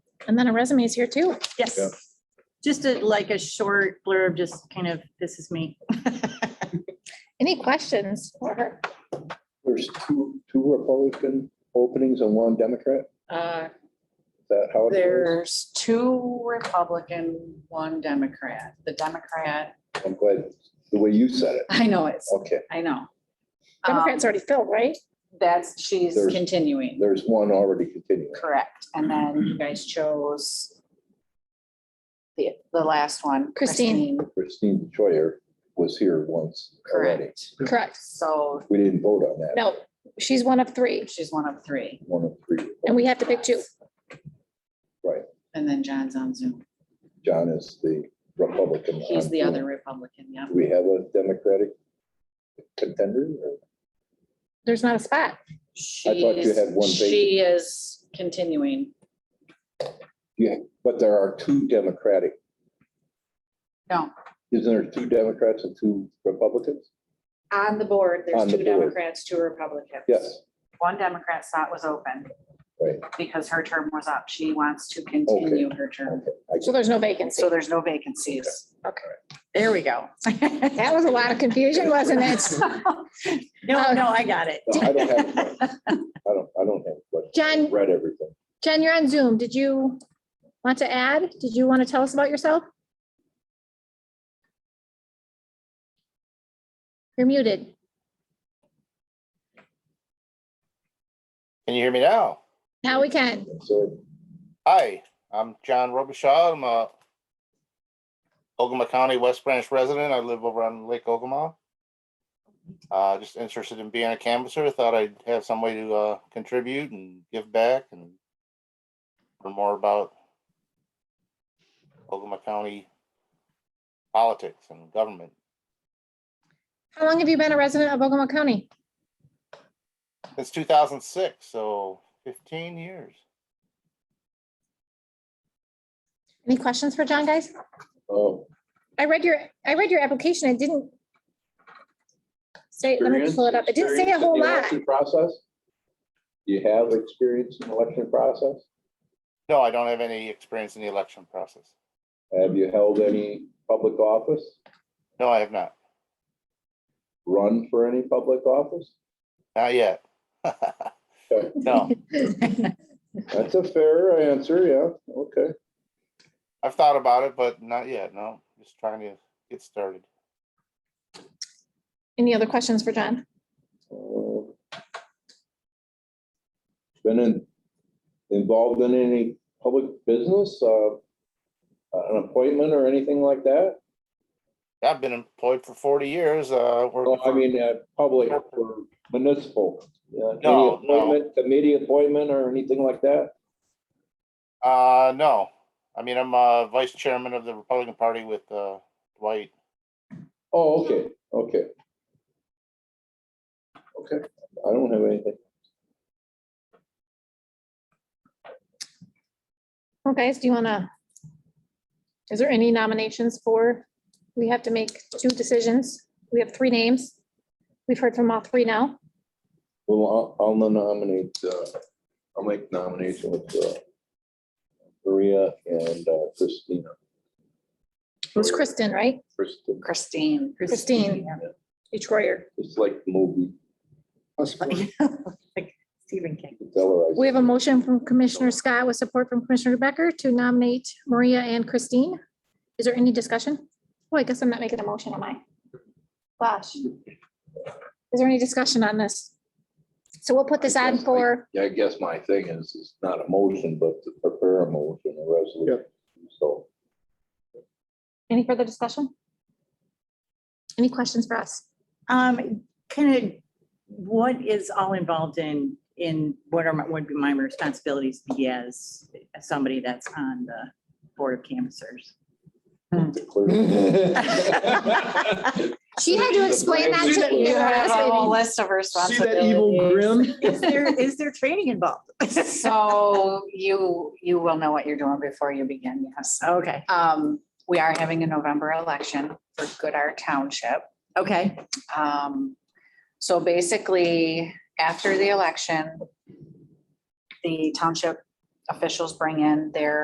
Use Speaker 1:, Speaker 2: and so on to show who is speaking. Speaker 1: And then a resume is here too.
Speaker 2: Yes.
Speaker 3: Yeah.
Speaker 2: Just a, like a short blurb, just kind of, this is me.
Speaker 1: Any questions for her?
Speaker 3: There's two, two Republican openings and one Democrat.
Speaker 4: Uh,
Speaker 3: Is that how it is?
Speaker 4: There's two Republican, one Democrat. The Democrat,
Speaker 3: I'm glad the way you said it.
Speaker 4: I know it's,
Speaker 3: Okay,
Speaker 4: I know. Um,
Speaker 1: Democrats already filled, right?
Speaker 4: That's, she's
Speaker 3: There's-
Speaker 4: continuing,
Speaker 3: there's one already continuing.
Speaker 4: correct. And then you guys chose the, the last one.
Speaker 1: Christine.
Speaker 3: Christine Choyer was here once already.
Speaker 4: Correct.
Speaker 1: Correct.
Speaker 4: So
Speaker 3: We didn't vote on that.
Speaker 1: No, she's one of three
Speaker 4: she's one of three.
Speaker 3: One of three.
Speaker 1: and we have to pick two.
Speaker 4: And then John's on Zoom.
Speaker 3: John is the Republican.
Speaker 4: He's
Speaker 3: on
Speaker 4: the
Speaker 3: Zoom.
Speaker 4: other Republican, yeah.
Speaker 3: Do we have a Democratic contender? or-
Speaker 1: There's not a spot.
Speaker 3: I thought you had one
Speaker 4: She's-
Speaker 3: vacant.
Speaker 4: She is continuing.
Speaker 3: But there are two Democratic,
Speaker 4: No,
Speaker 3: isn't there two Democrats and two Republicans?
Speaker 4: on the board,
Speaker 3: On
Speaker 4: there's
Speaker 3: the
Speaker 4: two
Speaker 3: board.
Speaker 4: Democrats, two Republicans.
Speaker 3: Yes,
Speaker 2: One Democrat slot was open.
Speaker 3: Right.
Speaker 2: Because her term was up. She wants to
Speaker 4: Continue her term.
Speaker 3: okay. I
Speaker 1: So there's no vacancy.
Speaker 2: So there's no vacancies.
Speaker 1: Okay.
Speaker 2: There we go.
Speaker 1: That was a lot of confusion, wasn't it?
Speaker 2: No, no, I got it.
Speaker 3: no, I don't have, a question. I don't, I don't have a question.
Speaker 1: Jen?
Speaker 3: I've Read everything.
Speaker 1: Jen, you're on Zoom. Did you want to add? Did you want to tell us about yourself? You're muted.
Speaker 5: Can you hear me now?
Speaker 1: Now we can.
Speaker 3: So
Speaker 5: Hi, I'm John Robichaud. I'm a Ogama County West Branch resident. I live over on Lake Ogama. Uh, just interested in being a canvasser. Thought I'd have some way to, uh, contribute and give back and learn more about Ogama County politics and government
Speaker 1: How long have you been a resident of Ogama County?
Speaker 5: since two thousand six, so fifteen years.
Speaker 1: Any questions for John, guys?
Speaker 3: Oh,
Speaker 1: I read your, I read your application. I didn't say, let me
Speaker 3: experience-
Speaker 1: pull it up. It didn't say a
Speaker 3: experience in
Speaker 1: whole
Speaker 3: the
Speaker 1: lot.
Speaker 3: election Process? Do You have experience in the election process?
Speaker 5: No, I don't have any experience in the election process.
Speaker 3: Have you held any public office,
Speaker 5: No, I have not.
Speaker 3: run for any public office?
Speaker 5: Not yet. No.
Speaker 3: That's a fair answer, yeah, okay.
Speaker 5: I've thought about it, but not yet. No, just trying to get started.
Speaker 1: Any other questions for John?
Speaker 3: Uh, Been in, involved in any public business, uh, an appointment or anything like that?
Speaker 5: I've been employed for forty years, uh, working
Speaker 3: No, I
Speaker 5: for-
Speaker 3: mean, uh, public or municipal. uh, any
Speaker 5: No, no.
Speaker 3: appointment, Committee appointment or anything like that?
Speaker 5: uh, no. I mean, I'm, uh, vice chairman of the Republican Party with, uh, Dwight.
Speaker 3: Oh, okay, okay. Okay, I don't have anything.
Speaker 1: Well, guys, do you want to? Is there any nominations for, we have to make two decisions. We have three names. We've heard from all three now.
Speaker 3: Well, I'll, I'll nominate, uh, I'll make nomination with, uh, Maria and uh, Christina.
Speaker 1: It was Kristen, right?
Speaker 3: Kristen,
Speaker 4: Christine.
Speaker 1: Christine. Detroit.
Speaker 3: It's like the movie,
Speaker 2: Like Stephen King.
Speaker 3: Valerized.
Speaker 1: We have a motion from Commissioner Scott with support from Commissioner Becker to nominate Maria and Christine. Is there any discussion? Well, I guess I'm not making a motion, am I? Gosh. Is there any discussion on this? So we'll put this on for,
Speaker 3: Yeah, I guess my thing is, it's not a motion, but to prepare a motion, a resolution, so.
Speaker 1: any further discussion? Any questions for us?
Speaker 2: Um, kind of, what is all involved in, in what are, my would be my responsibilities be as somebody that's on the board of canvassers?
Speaker 3: the clerk-
Speaker 1: She had to explain that to me.
Speaker 4: You
Speaker 1: the
Speaker 4: have
Speaker 1: last
Speaker 4: a whole
Speaker 1: meeting.
Speaker 4: list of
Speaker 6: See that evil
Speaker 4: responsibilities.
Speaker 6: grin?
Speaker 2: Is there, is there training involved?
Speaker 4: So you, you will know what you're doing before you begin, yes.
Speaker 2: Okay,
Speaker 4: Um, we are having a November election for Goodart Township.
Speaker 2: okay.
Speaker 4: Um, so basically, after the election, the township officials bring in their